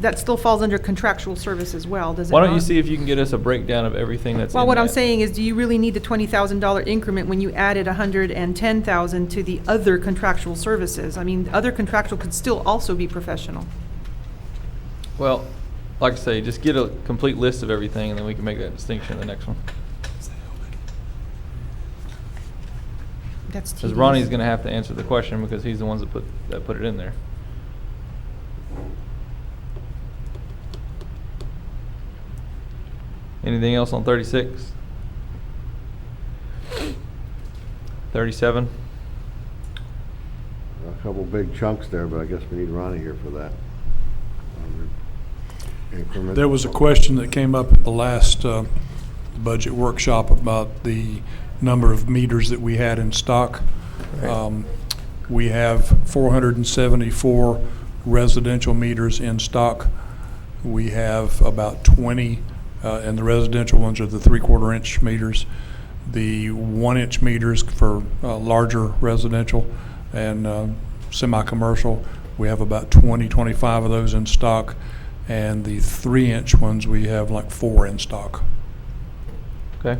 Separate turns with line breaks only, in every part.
that still falls under contractual service as well, does it not?
Why don't you see if you can get us a breakdown of everything that's in
Well, what I'm
that?
saying is, do you really need the twenty thousand dollar increment when you added a hundred and ten thousand to the other contractual services? I mean, other contractual could still also be professional.
Well, like I say, just get a complete list of everything, and then we can make that distinction in the next one.
That's
Because
tedious.
Ronnie's gonna have to answer the question, because he's the ones that put, that put it in there. Anything else on thirty-six? Thirty-seven?
A couple big chunks there, but I guess we need Ronnie here for that. Increment-
There was a question that came up at the last uh, budget workshop about the number of meters that we had in stock. Um, We have 474 residential meters in stock. We have about 20, uh, and the residential ones are the three-quarter inch meters, the one-inch meters for uh, larger residential and uh, semi-commercial. We have about 20, 25 of those in stock, and the three-inch ones, we have like four in stock.
Okay.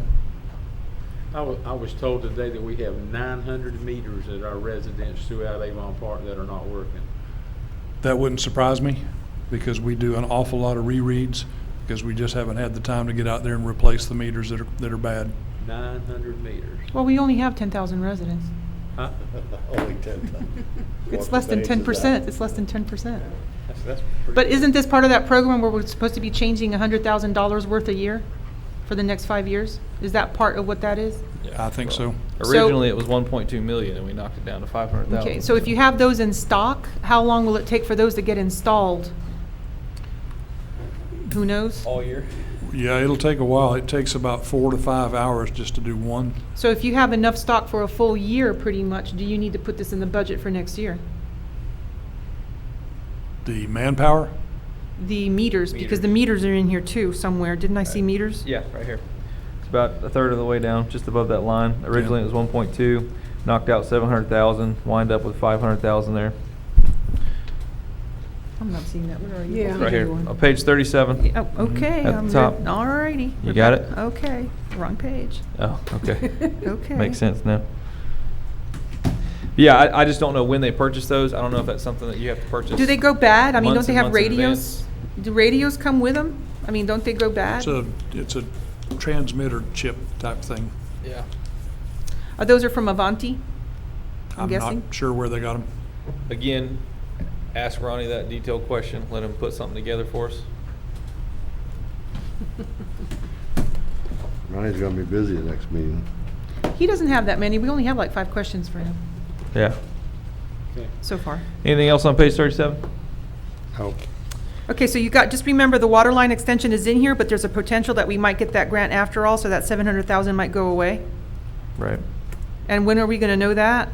I was, I was told today that we have nine hundred meters at our residence throughout Avon Park that are not working.
That wouldn't surprise me, because we do an awful lot of rereads, because we just haven't had the time to get out there and replace the meters that are, that are bad.
Nine hundred meters.
Well, we only have ten thousand residents.
Huh?
Only ten times.
It's
What
less than
page is
ten
that?
percent, it's less than ten percent.
That's- that's pretty-
But isn't this part of that program where we're supposed to be changing hundred thousand dollars worth a year for the next five years? Is that part of what that is?
I think so.
So-
Originally, it was one point two million, and we knocked it down to five hundred thousand.
Okay, so if you have those in stock, how long will it take for those to get installed? Who knows?
All year.
Yeah, it'll take a while. It takes about four to five hours just to do one.
So if you have enough stock for a full year, pretty much, do you need to put this in the budget for next year?
The manpower,
The meters, because the meters are in here too somewhere. Didn't I see meters?
Yeah, right here. It's about a third of the way down, just above that line. Originally, it was one point two, knocked out seven hundred thousand, wind up with five hundred thousand there.
I'm not seeing that. Where are you?
Yeah.
Right here, on page thirty-seven.
Oh, okay.
At the
I'm re-
top.
All righty.
You got it?
Okay, wrong page.
Oh, okay.
Okay.
Makes sense now. Yeah, I, I just don't know when they purchase those. I don't know if that's something that you have to purchase.
Do they go bad? I mean, don't
months
they
and
have
months in
radios?
advance.
Do radios come with them? I mean, don't they go bad?
it's a, it's a transmitter chip type thing.
Yeah.
Are Uh, those are from Avanti? I'm
I'm
guessing.
not sure where they got them.
Again, ask Ronnie that detailed question. Let him put something together for us.
Ronnie's gonna be busy the next meeting.
He doesn't have that many. We only have like five questions for him
Yeah.
Okay.
so far.
Anything else on page thirty-seven?
Oh,
Okay, so you got, just remember, the water line extension is in here, but there's a potential that we might get that grant after all, so that seven hundred thousand might go away.
Right.
And when are we gonna know that?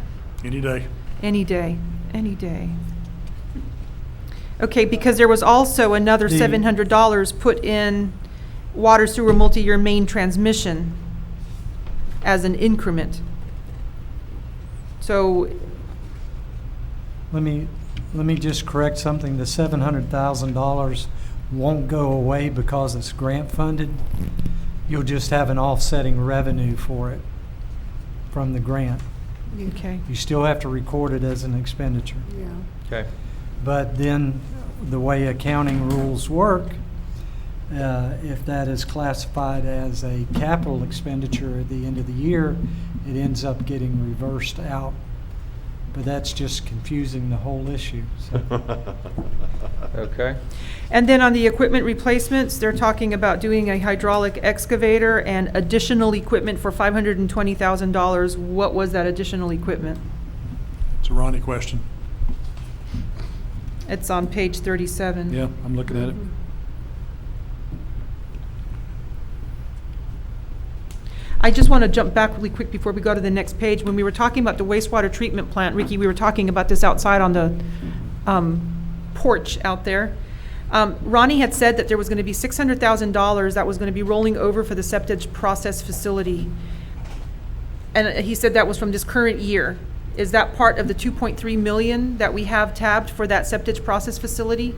Any day.
Any day, any day. Okay, because there was also another
The-
seven hundred dollars put in water sewer multi-year main transmission as an increment. So,
Let me, let me just correct something. The seven hundred thousand dollars won't go away because it's grant funded. You'll just have an offsetting revenue for it from the grant.
okay,
You still have to record it as an expenditure.
Yeah.
Okay.
But then, the way accounting rules work, uh, if that is classified as a capital expenditure at the end of the year, it ends up getting reversed out. But that's just confusing the whole issue, so.
Okay.
And then on the equipment replacements, they're talking about doing a hydraulic excavator and additional equipment for five hundred and twenty thousand dollars. What was that additional equipment?
It's a Ronnie question.
It's on page thirty-seven.
Yeah, I'm looking at it.
I just want to jump back really quick before we go to the next page. When we were talking about the wastewater treatment plant, Ricky, we were talking about this outside on the um, porch out there. Um, Ronnie had said that there was going to be six hundred thousand dollars that was going to be rolling over for the septic process facility. And he said that was from this current year. Is that part of the two point three million that we have tabbed for that septic process facility?